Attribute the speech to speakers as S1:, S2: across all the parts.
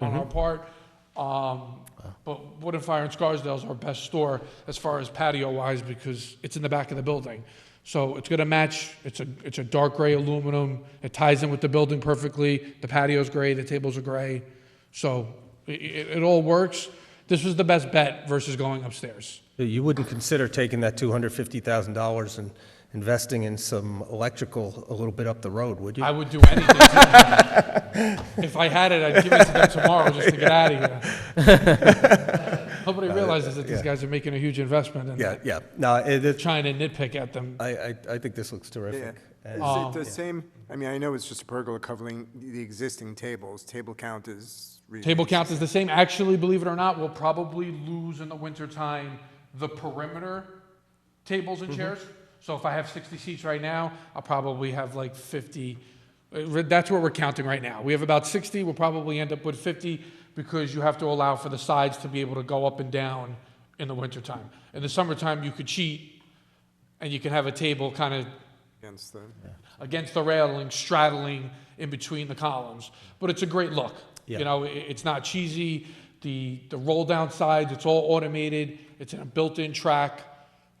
S1: on
S2: Mm-hmm.
S1: our part. Um, But Wood and Fire in Scarsdale is our best store as far as patio-wise because it's in the back of the building. So it's going to match, it's a, it's a dark gray aluminum, it ties in with the building perfectly, the patio's gray, the tables are gray. So i- i- it, it all works. This was the best bet versus going upstairs.
S2: You wouldn't consider taking that $250,000 and investing in some electrical a little bit up the road, would you?
S1: I would do anything. If I had it, I'd give it to them tomorrow just to get out of here. Nobody realizes that these
S2: yeah.
S1: guys are making a huge investment and
S2: Yeah,
S1: they're
S2: yeah. No, it, it-
S1: trying to nitpick at them.
S2: I, I, I think this looks terrific.
S3: Is
S2: And-
S3: it the same, I mean, I know it's just a pergola covering the existing tables, table count is. really-
S1: Table count is the same. Actually, believe it or not, we'll probably lose in the wintertime the perimeter tables and chairs. So if I have 60 seats right now, I'll probably have like 50. Uh, That's what we're counting right now. We have about 60. We'll probably end up with 50 because you have to allow for the sides to be able to go up and down in the wintertime. In the summertime, you could cheat and you can have a table kind of
S3: Against the,
S1: against the railing, straddling in between the columns. But it's a great look. You
S2: Yeah.
S1: know, i it's not cheesy. The the roll down sides, it's all automated. It's in a built-in track.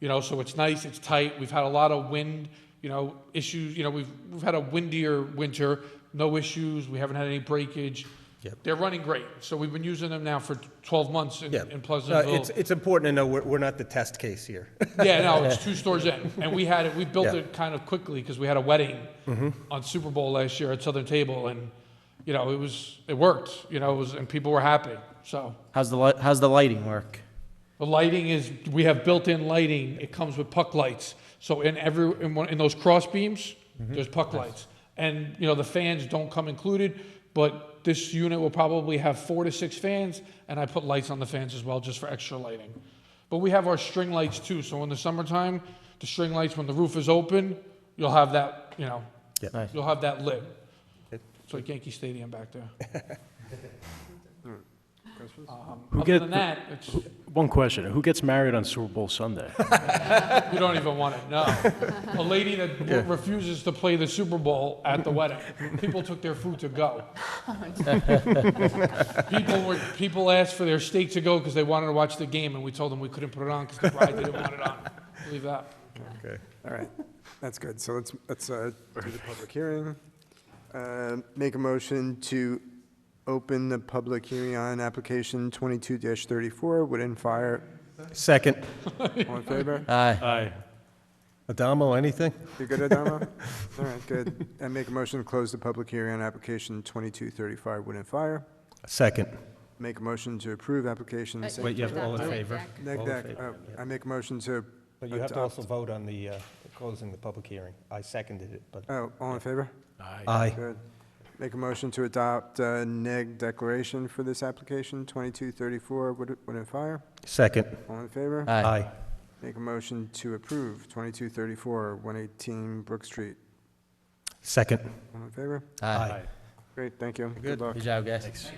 S1: You know, so it's nice. It's tight. We've had a lot of wind. You know, issues. You know, we've we've had a windier winter. No issues. We haven't had any breakage.
S2: Yep.
S1: They're running great. So we've been using them now for 12 months in,
S2: Yeah.
S1: in
S2: No,
S1: Pleasantville.
S2: It's, it's important to know we're, we're not the test case here.
S1: Yeah, no, it's two stores in, and we had it. We built
S2: Yeah.
S1: it kind of quickly because we had a wedding on Super Bowl last year at Southern Table, and you know it was it worked. You know, it was and people were happy. So
S4: How's the li- how's the lighting work?
S1: the lighting is we have built-in lighting. It comes with puck lights. So in every in, one, in those cross beams, there's puck lights, and you know the fans don't come included, but this unit will probably have four to six fans, and I put lights on the fans as well just for extra lighting. But we have our string lights too. So in the summertime, the string lights when the roof is open, you'll have that you know
S2: Yeah.
S4: Nice.
S1: you'll have that lit. It's like Yankee Stadium back there. Um,
S5: Who
S1: other
S5: get
S1: than
S5: the-
S1: that, it's.
S5: One question, who gets married on Super Bowl Sunday?
S1: We don't even want to know. A lady that w- refuses to play the Super Bowl at the wedding. People took their food to go. people were people asked for their steak to go because they wanted to watch the game, and we told them we couldn't put it on because the bride didn't want it on. Believe that.
S2: Okay.
S3: all right, that's good, so let's, let's uh, do the public hearing. Uh, Make a motion to open the public hearing on application twenty-two thirty-four, Wood and Fire,
S2: Second,
S3: all in favor?
S4: Aye.
S5: Aye.
S2: Adamo, anything?
S3: You good, Adama? All right, good, and make a motion to close the public hearing on application twenty-two thirty-five, Wood and Fire.
S2: Second.
S3: Make a motion to approve
S1: Uh,
S3: application. six-
S2: Wait, you have all in
S6: Neg
S2: favor?
S6: deck.
S3: Neg
S2: All in
S3: deck,
S2: favor,
S3: uh, I make a motion to.
S2: But you have to
S3: adopt-
S2: also vote on the, uh, closing the public hearing. I seconded it, but.
S3: Oh, all in favor?
S2: Aye.
S3: Good. Make a motion to adopt uh, neg declaration for this application, 2234 Wood Wood and Fire.
S2: Second.
S3: All in favor?
S4: Aye.
S2: Aye.
S3: Make a motion to approve 2234 118 Brook Street.
S2: Second.
S3: All in favor?
S4: Aye.
S3: Great, thank you. Good luck.
S4: Good job, guys.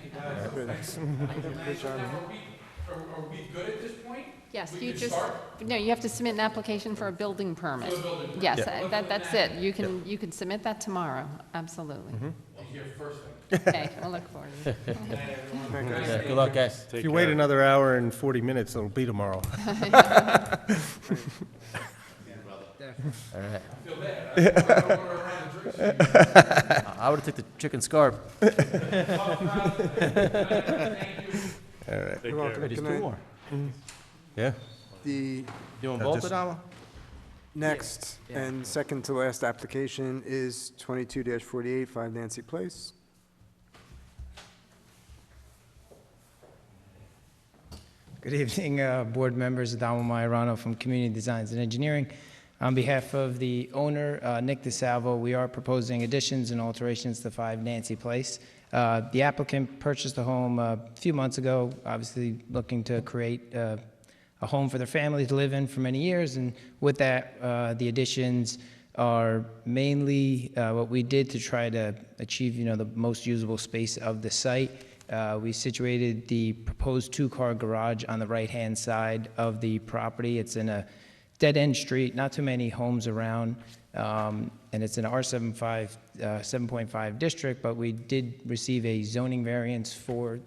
S1: Are, we good at this point?
S6: Yes, you just, no, you have to submit an application for a building permit. Yes, uh, that, that's it. You can, you can submit that tomorrow, absolutely. Okay, I'll look forward to it.
S4: Good luck, guys.
S2: If you wait another hour and 40 minutes, it'll be tomorrow.
S4: All right. I would have took the chicken scarf.
S3: You're welcome.
S4: Wait, there's
S3: Good
S4: two
S3: night.
S4: more.
S2: Yeah?
S3: The
S4: Doing
S2: No,
S4: both,
S2: just-
S4: Adamo?
S3: next and second to last application is 22-48 5 Nancy Place.
S7: Good evening, uh, board members. Adamo Maiorano from Community Designs and Engineering. On behalf of the owner, uh, Nick DeSalvo, we are proposing additions and alterations to 5 Nancy Place. Uh, The applicant purchased the home uh, a few months ago, obviously looking to create uh, a home for their family to live in for many years, and with that, uh, the additions are mainly uh, what we did to try to achieve, you know, the most usable space of the site. Uh, We situated the proposed two-car garage on the right-hand side of the property. It's in a dead-end street, not too many homes around, um, and it's an R75, uh, 7.5 district, but we did receive a zoning variance for